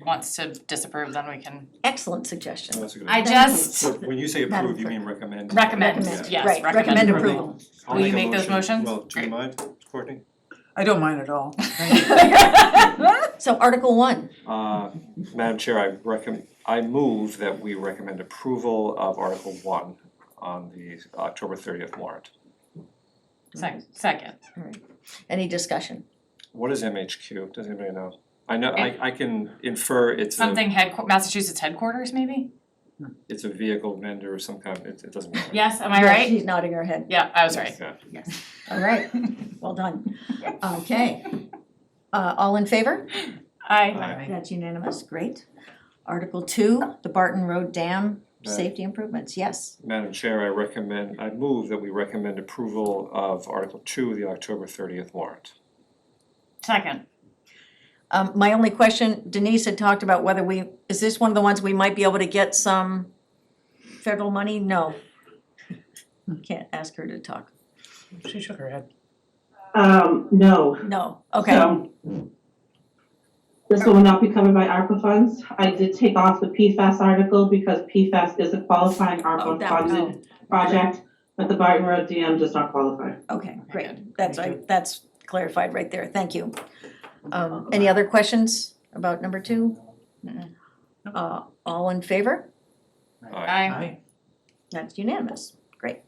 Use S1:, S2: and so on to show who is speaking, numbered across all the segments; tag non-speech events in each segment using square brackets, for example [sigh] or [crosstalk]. S1: wants to disapprove, then we can
S2: Excellent suggestion.
S3: Oh, That's a good
S1: I
S3: idea.
S4: [laughs]
S1: just
S3: [laughs] So When you say
S2: Madam
S3: approve, you
S2: Clerk.
S3: mean recommend?
S1: recommend,
S2: Recommend,
S1: yes,
S2: right,
S1: recommend.
S2: recommend
S1: approval.
S2: approval.
S3: I'll
S1: Will you
S3: a
S1: make those
S3: motion.
S1: motions?
S3: Well, do you
S1: Great.
S3: mind, Courtney?
S4: I don't mind at all.
S2: So Article one,
S3: Uh, Madam Chair, I recommend, I move that we recommend approval of Article One on the October thirtieth warrant.
S1: Sec- Second,
S2: any discussion?
S3: What is MHQ? Does anybody know? I know, I I can infer it's a,
S1: something head, Massachusetts headquarters maybe?
S3: it's a vehicle vendor of some kind, it it doesn't matter.
S1: Yes, am I
S2: Yeah,
S1: right?
S2: She's nodding her head.
S1: Yeah, I was right.
S3: Yeah.
S1: [laughs]
S2: All right, well done. Okay. Uh, all in favor?
S3: Aye.
S1: I,
S2: That's unanimous, great. Article two, the Barton Road Dam
S3: Aye.
S2: safety improvements, yes.
S3: Madam Chair, I recommend, I move that we recommend approval of Article Two, the October thirtieth warrant.
S1: second,
S2: Um, my only question, Denise had talked about whether we, is this one of the ones we might be able to get some federal money? No. Can't ask her to talk.
S4: She shook her head.
S5: Um, no,
S2: No, okay,
S5: so. This one will not be covered by ARPA funds. I did take off the PFAS article because PFAS is a qualifying
S2: Oh,
S5: ARPA
S2: that-
S5: funded project, but the Barton Road DM does not qualify.
S2: okay, great.
S1: Good,
S2: That's,
S4: thank
S2: I, that's clarified right there, thank you. Um, any other questions about number two?
S1: Mm-mm.
S2: Uh, all in favor?
S1: I,
S2: That's unanimous, great.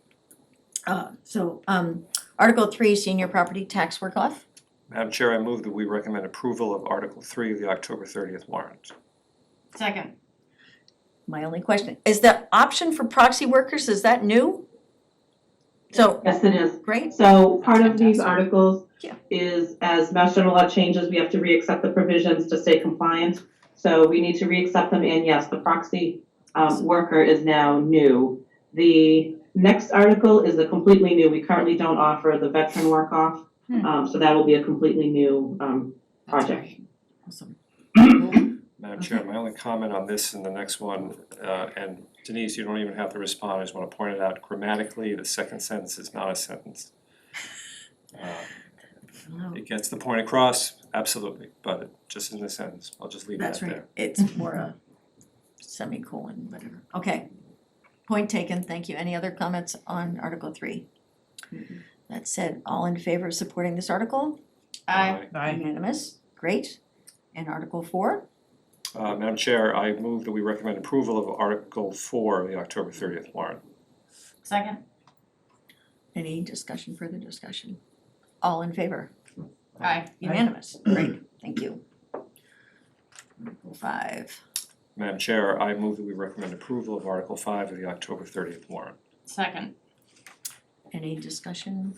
S2: Uh, so, um, Article three, senior property tax work off,
S3: Madam Chair, I move that we recommend approval of Article Three of the October thirtieth warrant.
S1: second,
S2: my only question, is the option for proxy workers, is that new? So,
S5: Yes, it is.
S2: great,
S5: So part of
S1: That's
S5: these
S1: fantastic.
S5: articles
S2: Yeah.
S5: is as Mass General Law changes, we have to re-accept the provisions to stay compliant. So we need to re-accept them and yes, the proxy um worker is now new. The next article is a completely new, we currently don't offer the veteran work off.
S1: Hmm.
S5: Um so that will be a completely new um
S1: that's
S5: Project.
S1: right.
S2: awesome,
S3: Madam Chair, my only comment on this and the next one, uh, and Denise, you don't even have to respond, I just wanna point it out grammatically, the second sentence is not a sentence.
S2: [laughs]
S3: Uh, It gets the point across, absolutely, but it just in the sentence, I'll just leave that
S2: that's
S3: there.
S2: right, it's more a semicolon, whatever, okay. Point taken, thank you, any other comments on Article three? That said, all in favor of supporting this article?
S1: I,
S4: Aye.
S2: Unanimous, great, and Article four,
S3: Uh, Madam Chair, I move that we recommend approval of Article Four of the October thirtieth warrant.
S1: second,
S2: any discussion, further discussion? All in favor?
S1: I,
S2: Unanimous, great, thank you. Article Five,
S3: Madam Chair, I move that we recommend approval of Article Five of the October thirtieth warrant.
S1: second,
S2: any discussion?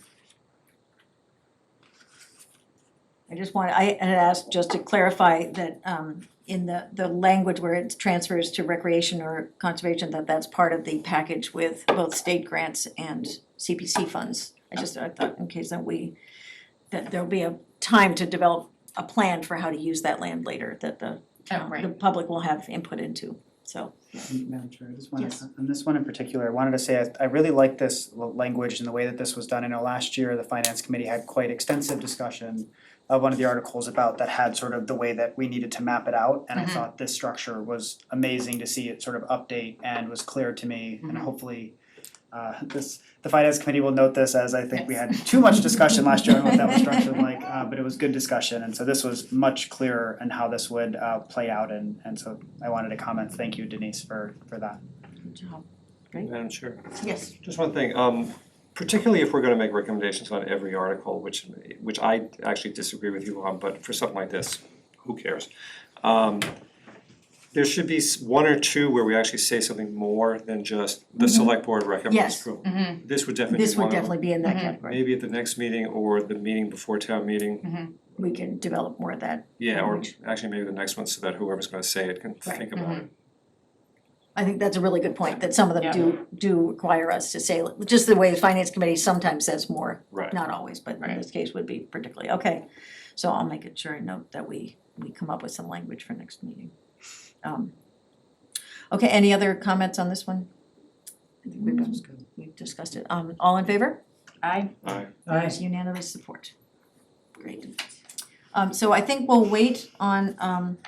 S2: I just want, I had asked just to clarify that um in the the language where it transfers to recreation or conservation, that that's part of the package with both state grants and CPC funds. I just, I thought in case that we, that there'll be a time to develop a plan for how to use that land later, that the
S1: oh,
S2: the
S1: right,
S2: public will have input into, so.
S6: Madam Chair, I just wanna,
S2: Yes.
S6: on this one in particular, I wanted to say, I I really like this l- language and the way that this was done. I know last year, the finance committee had quite extensive discussion of one of the articles about that had sort of the way that we needed to map it out, and I
S1: Mhm.
S6: thought this structure was amazing to see it sort of update and was clear to me, and
S1: Mhm.
S6: hopefully uh this, the finance committee will note this as I think we had too much discussion last year on what that was structured like, uh but it was good discussion, and so this was much clearer in how this would uh play out, and and so I wanted to comment, thank you Denise for for that.
S2: Right.
S3: Madam Chair.
S2: Yes.
S3: Just one thing, um, particularly if we're gonna make recommendations on every article, which, which I actually disagree with you on, but for something like this, who cares? Um, there should be s- one or two where we actually say something more than just the select board recommends
S2: Mm-hmm. Yes. Mm-hmm.
S3: approval.
S1: mhm,
S3: This would definitely
S2: This
S3: be one
S2: would
S3: of them.
S2: definitely be Mm-hmm. in that
S1: Mhm.
S2: category.
S3: Maybe at the next meeting or the meeting before town meeting,
S1: mhm,
S2: We can develop more of that.
S3: yeah, or
S2: Language.
S3: actually maybe the next one so that whoever's gonna say it can
S2: Right.
S3: think about it.
S2: I think that's a really good point, that some of them
S1: Yeah.
S2: do, do require us to say, just the way the finance committee sometimes says more,
S3: Right.
S2: not always, but in
S1: Right.
S2: this case would be particularly, okay. So I'll make it sure and note that we, we come up with some language for next meeting. Um, Okay, any other comments on this one? I think We've we've discussed it. Um, all in favor?
S1: I,
S3: Aye.
S2: There's unanimous support. Great. Um, so I think we'll wait on, um,